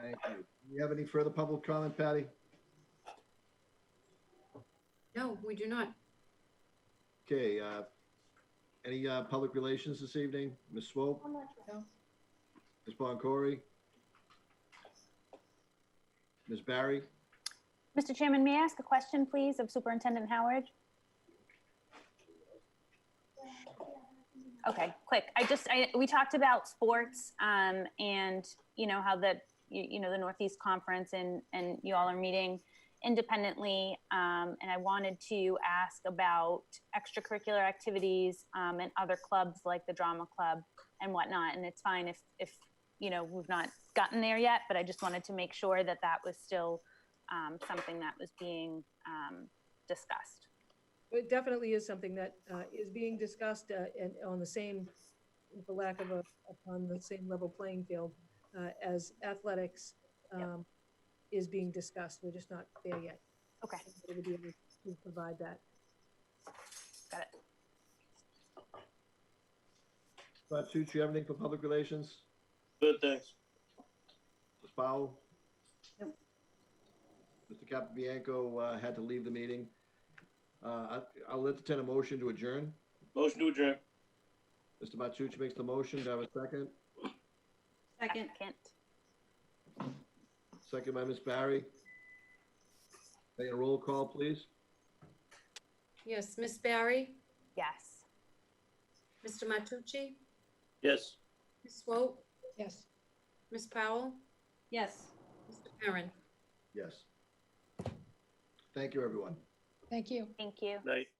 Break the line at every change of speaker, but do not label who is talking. Thank you. Do you have any further public comment, Patty?
No, we do not.
Okay, uh, any, uh, public relations this evening? Ms. Swope, Ms. Boncory? Ms. Barry?
Mr. Chairman, may I ask a question, please, of Superintendent Howard? Okay, quick. I just, I, we talked about sports, um, and, you know, how the, you, you know, the Northeast Conference and, and you all are meeting independently. Um, and I wanted to ask about extracurricular activities, um, and other clubs like the drama club and whatnot. And it's fine if, if, you know, we've not gotten there yet, but I just wanted to make sure that that was still, um, something that was being um, discussed.
It definitely is something that uh, is being discussed uh, and on the same, for lack of a, upon the same level playing field uh, as athletics
Yep.
um, is being discussed. We're just not there yet.
Okay,
We're gonna be able to provide that.
got it.
Batu, do you have anything for public relations?
Good, thanks.
Ms. Powell?
Nope.
Mr. Capabianco, uh, had to leave the meeting. Uh, I- I'll entertain a motion to adjourn.
Motion to adjourn.
Mr. Matucci makes the motion. Do I have a second?
Second.
Second by Ms. Barry. Take a roll call, please.
Yes, Miss Barry,
Yes.
Mr. Matucci,
Yes.
Ms. Swope,
Yes.
Miss Powell,
Yes.
Mr. Perrin.
Yes. Thank you, everyone.
Thank you.
Thank you.
Night.